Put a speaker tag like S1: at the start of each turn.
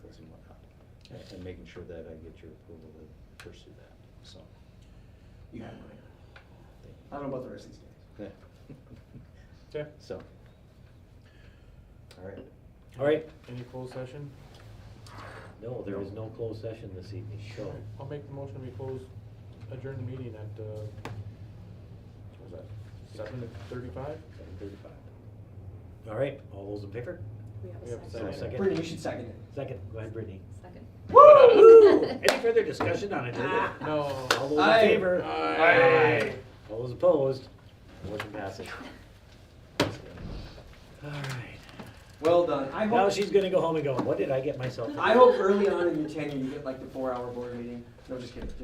S1: and- and making sure that I get your approval to pursue that, so.
S2: You have mine.
S1: thank
S2: I don't know about the rest of these guys.
S1: you.
S3: Okay,
S1: So. All right.
S4: All right,
S3: any closed session?
S4: no, there is no closed session this evening, so,
S3: I'll make the motion, we close, adjourn the meeting at, uh, what was that, seven thirty-five?
S1: Seven thirty-five.
S4: all right, all those in favor?
S3: We have a
S4: Is there a
S3: second.
S4: Second.
S2: Brittany, you should second it.
S4: Second, go ahead, Brittany.
S5: Second.
S4: Any further discussion on it?
S3: No.
S4: All those in
S2: Aye.
S4: favor?
S3: Aye.
S4: All those opposed? Motion passes. All right,
S2: Well done. I
S4: now
S2: hope,
S4: she's gonna go home and go, what did I get myself? into?"
S2: I hope early on in your tenure, you get like the four-hour board meeting. No, just kidding.